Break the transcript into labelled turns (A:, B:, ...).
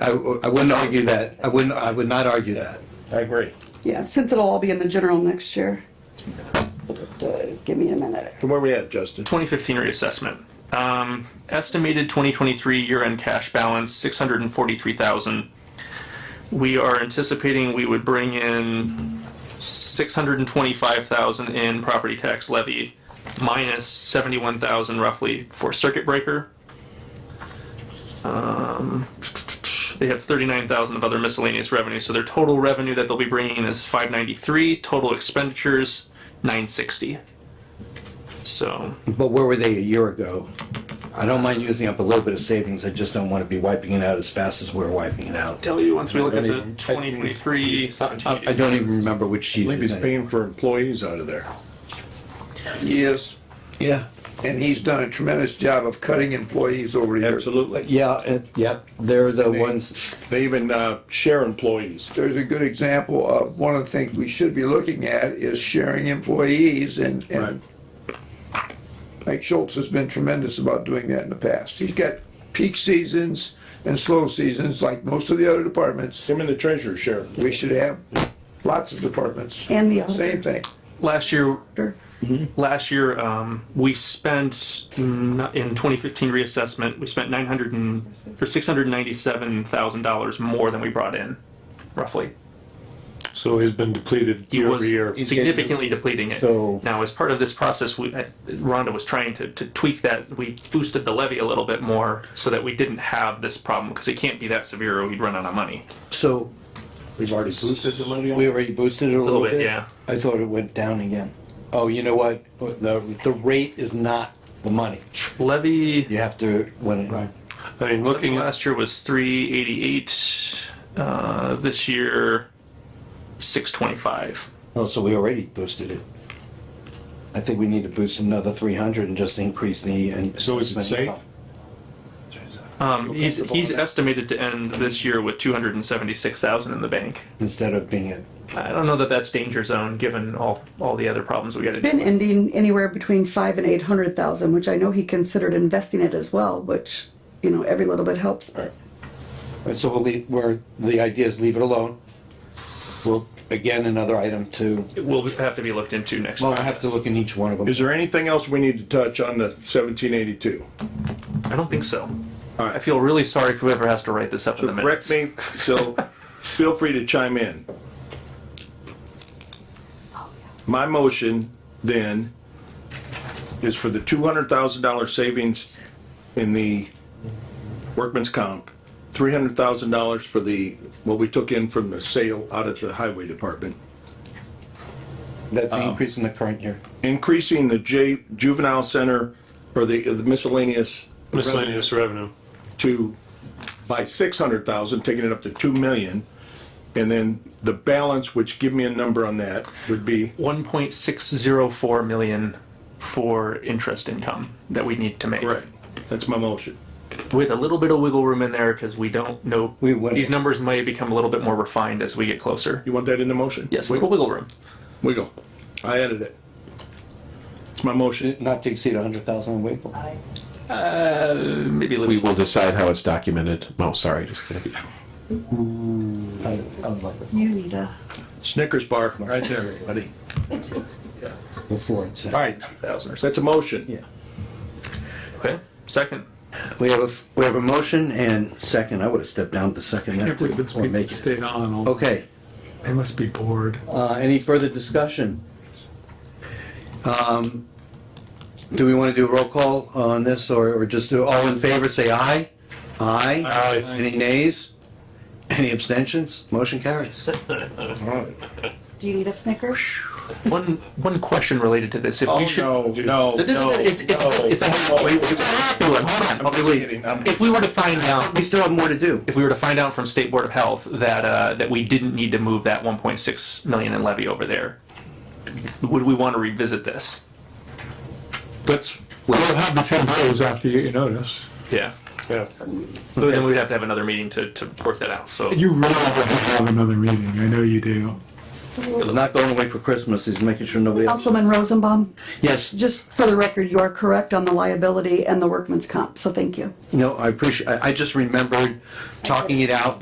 A: I, w- I wouldn't argue that. I wouldn't, I would not argue that.
B: I agree.
C: Yeah, since it'll all be in the general next year. But, uh, Give me a minute.
B: From where we at, Justin?
D: 2015 reassessment. Um, estimated 2023 year-end cash balance 643,000. We are anticipating we would bring in 625,000 in property tax levy, minus 71,000 roughly for circuit breaker. Um, they have 39,000 of other miscellaneous revenue, so their total revenue that they'll be bringing in is 593. Total expenditures 960. So.
A: But where were they a year ago? I don't mind using up a little bit of savings. I just don't want to be wiping it out as fast as we're wiping it out.
D: tell you once we look at the
B: mean, I-
D: 2023.
A: Uh, I I don't even remember which sheet.
B: I think
A: it
B: he's
A: was in.
B: paying for employees out of there.
E: Yes,
A: Yeah,
E: and he's done a tremendous job of cutting employees over the years.
B: Absolutely.
A: yeah, it, yep. They're the
B: They-
A: ones,
B: They even uh, share employees.
E: There's a good example of one of the things we should be looking at is sharing employees and, and Mike Schultz has been tremendous about doing that in the past. He's got peak seasons and slow seasons like most of the other departments.
B: Him and the treasurer share.
E: We should have lots of departments.
C: And the auditor.
E: Same thing.
D: Last year, last year um, we spent n- in 2015 reassessment. We spent 900 and, or 697 thousand dollars more than we brought in, roughly.
F: So he's been depleted
D: He
F: year
D: was
F: over year.
D: significantly depleting it.
A: So-
D: now, as part of this process, we, I- Rhonda was trying to, to tweak that. We boosted the levy a little bit more so that we didn't have this problem because it can't be that severe. or We'd run out of money.
A: so
B: We've already boosted the levy on
A: we already boosted it a little
D: bit,
A: bit.
D: yeah.
A: I thought it went down again. Oh, you know what? The, the rate is not the money.
D: Levy
A: You have to, when,
F: I mean,
D: Looking
F: looking at,
D: last year was 388. Uh, this year, 625.
A: Oh, so we already boosted it. I think we need to boost another three hundred and just increase the. and-
B: So is it safe?
D: Um, he's he's estimated to end this year with 276,000 in the bank.
A: Instead of being at,
D: I don't know that that's danger zone given all all the other problems we got to
C: Been
D: do.
C: ending anywhere between five and eight hundred thousand, which I know he considered investing it as well, which, you know, every little bit helps. but-
A: so we'll leave, we're, the idea is leave it alone. Well, again, another item to,
D: It will have to be looked into next.
A: well, I
D: time.
A: have to look in each one of them.
B: Is there anything else we need to touch on the seventeen eighty-two?
D: I don't think so.
B: Alright.
D: I feel really sorry for whoever has to write this up in the minutes.
B: Correct me, so feel free to chime in. My motion then is for the two hundred thousand dollar savings in the workman's comp, three hundred thousand dollars for the, what we took in from the sale out at the highway department,
A: That's
B: um,
A: the increase in the current year.
B: increasing the J, juvenile center or the uh, the miscellaneous
F: miscellaneous revenue.
B: to, by six hundred thousand, taking it up to two million. And then the balance, which give me a number on that, would be,
D: 1.604 million for interest income that we need to make.
B: right, that's my motion.
D: with a little bit of wiggle room in there because we don't know.
A: We wouldn't.
D: These numbers may become a little bit more refined as we get closer.
B: You want that in the motion?
D: Yes, a little wiggle room.
B: Wiggle. I added it. It's my motion.
A: Not to exceed a hundred thousand in Wakefield.
D: Maybe a little.
G: We will decide how it's documented. Oh, sorry, just kidding.
A: I- I would like it
C: You need a.
B: Snickers bar, right there, everybody.
A: Before it's.
B: All right,
D: thousand or so.
B: that's a motion.
D: Okay. Second.
A: We have, a we have a motion and second. I would have stepped down to second. that too, or make it.
F: on
A: Okay.
F: They must be bored.
A: Uh, any further discussion? Um, Do we want to do a roll call on this, or, or just do, all in favor, say aye? Aye?
F: Aye.
A: Any nays? Any abstentions? Motion carries.
C: Do you need a Snicker?
D: One one question related to this. If we should.
B: Oh, no,
D: No, no, no, It's, it's, it's, a, it's a happy one. Hold on. I'll delete it.
B: kidding. I'm-
D: If we were to find out,
A: We still have more to do.
D: if we were to find out from State Board of Health that uh, that we didn't need to move that 1.6 million in levy over there, would we want to revisit this?
A: Let's,
F: Well, it happened ten days after you get your notice.
D: Yeah.
B: Yeah.
D: But then we'd have to have another meeting to, to work that out. So
F: You really have to have another meeting. I know you do.
A: He's not going away for Christmas, he's making sure nobody else.
C: Councilman Rosenbaum,
A: Yes,
C: just for the record, you are correct on the liability and the workman's comp, so thank you.
A: no, I appreciate, I, I just remembered talking it out